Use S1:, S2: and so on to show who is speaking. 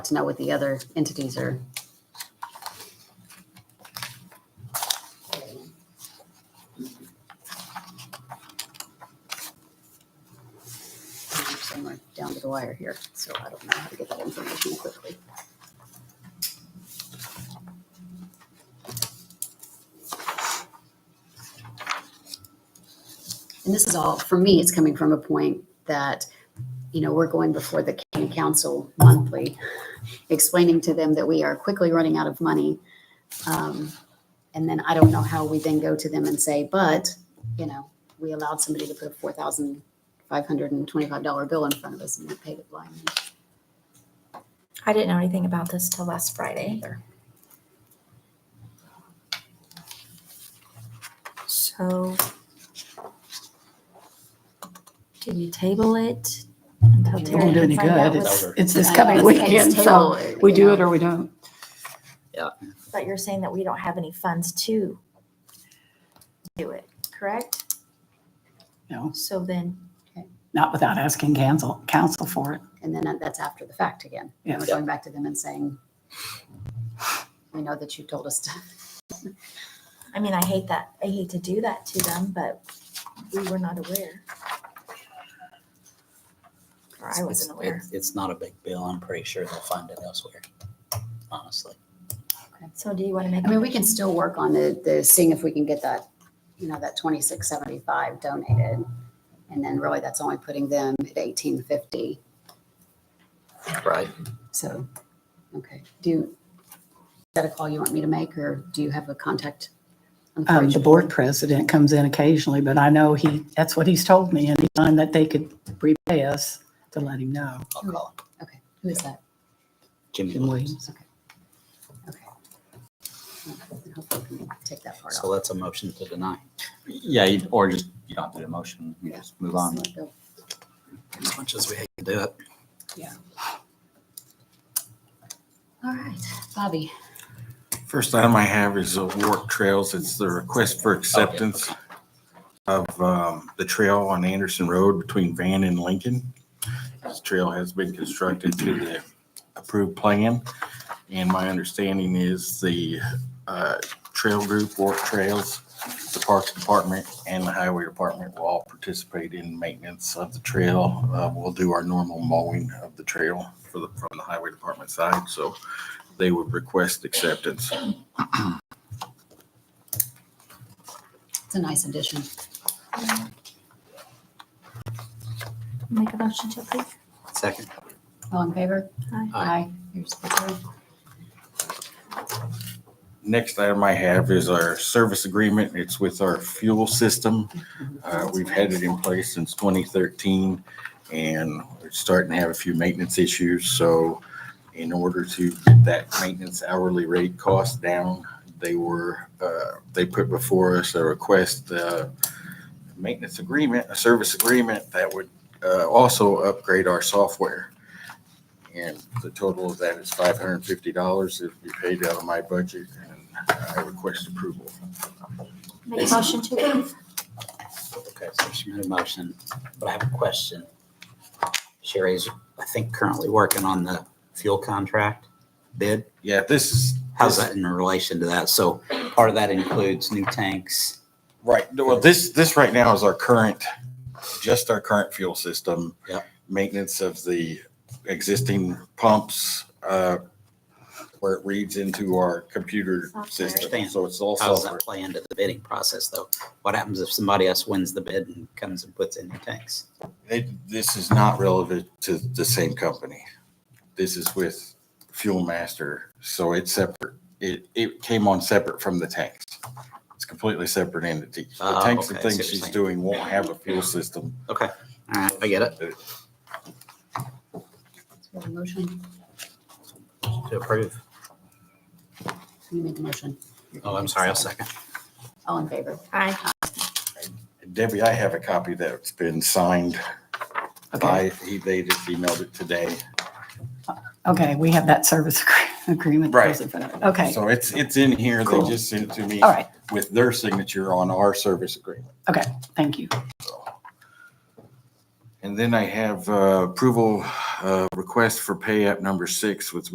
S1: to know what the other entities are. Somewhere down to the wire here, so I don't know how to get that information quickly. And this is all, for me, it's coming from a point that, you know, we're going before the county council monthly explaining to them that we are quickly running out of money. Um, And then I don't know how we then go to them and say, but, you know, we allowed somebody to put a four thousand five hundred and twenty-five dollar bill in front of us and we paid it blindly.
S2: I didn't know anything about this till last Friday either. So do you table it until
S1: It
S2: Terry
S3: won't do
S2: can
S3: any
S2: find out
S3: good.
S2: what's-
S3: It's this
S1: I
S3: coming
S1: was saying,
S3: weekend,
S1: it's
S3: so
S1: table,
S3: we
S1: you
S3: do
S1: know.
S3: it or we don't.
S2: But you're saying that we don't have any funds to do it, correct?
S3: No,
S2: So then
S3: not without asking council, council for it.
S1: And then that's after the fact again. And we're
S3: Yes.
S1: going back to them and saying, we know that you told us to.
S2: I mean, I hate that. I hate to do that to them, but we were not aware. Or I
S4: It's-
S2: wasn't
S4: it's-
S2: aware.
S4: it's- It's not a big bill. I'm pretty sure they'll find it elsewhere, honestly.
S2: So do you want to make?
S1: I mean, we can still work on the, the, seeing if we can get that, you know, that twenty-six seventy-five donated. And then really that's only putting them at eighteen fifty.
S4: Right.
S1: So, okay, do, you- is that a call you want me to make or do you have a contact? on
S3: Um, the
S1: Fraser?
S3: board president comes in occasionally, but I know he, that's what he's told me. Anytime that they could repay us to let him know.
S4: I'll call him.
S1: Okay, who is that?
S4: Jimmy
S3: Jim
S4: Williams.
S3: Williams.
S1: Okay. And Hopefully we can take that part
S4: So
S1: off.
S4: that's a motion to deny.
S5: Yeah, you- or just, you don't have to do the motion, you
S1: Yeah.
S5: just move on.
S1: Just let go.
S4: As much as we hate to do it.
S1: All right, Bobby,
S6: First item I have is uh, Warwick Trails. It's the request for acceptance of um, the trail on Anderson Road between Van and Lincoln. This trail has been constructed to the approved plan. And my understanding is the uh, trail group, Warwick Trails, the Parks Department and the Highway Department will all participate in maintenance of the trail. Uh, We'll do our normal mowing of the trail for the, from the Highway Department side. So they would request acceptance.
S1: it's a nice addition.
S2: Make a motion to approve.
S4: Second.
S1: All in favor?
S2: Aye.
S4: Aye.
S1: Here's the third.
S6: Next item I have is our service agreement. It's with our fuel system. Uh, We've had it in place since 2013, and we're starting to have a few maintenance issues. So in order to get that maintenance hourly rate cost down, they were, uh, they put before us a request, uh, maintenance agreement, a service agreement that would uh, also upgrade our software. And the total of that is five hundred and fifty dollars. It'll be paid out of my budget and I request approval.
S2: Make a motion to approve.
S4: Okay, so she made a motion, but I have a question. Sherry's, I think, currently working on the fuel contract bid.
S6: Yeah, this is.
S4: How's that in relation to that? So part of that includes new tanks.
S6: Right, well, this, this right now is our current, just our current fuel system.
S4: Yep.
S6: Maintenance of the existing pumps, uh, where it reads into our computer
S2: Software.
S6: system. So it's all
S4: How's
S6: software.
S4: that play into the bidding process, though? What happens if somebody else wins the bid and comes and puts in new tanks?
S6: They, this is not relevant to the same company. This is with Fuel Master, so it's separate. It, it came on separate from the tanks. It's completely separate entity. The
S4: Oh,
S6: tanks and
S4: okay, I see what
S6: things
S4: you're
S6: she's
S4: saying.
S6: doing won't have a fuel system.
S4: Okay, all right, I get it.
S1: So we have a motion,
S4: To approve.
S1: you made the motion.
S4: Oh, I'm sorry, I'll second.
S1: All in favor?
S2: Aye.
S6: Debbie, I have a copy that's been signed
S3: Okay,
S6: by, he- they just emailed it today.
S3: okay, we have that service agree- agreement.
S6: Right.
S3: Okay,
S6: So it's, it's in here. They
S3: Cool.
S6: just sent it to me
S3: all right,
S6: with their signature on our service agreement.
S3: okay, thank you.
S6: And then I have uh, approval uh, request for pay app number six with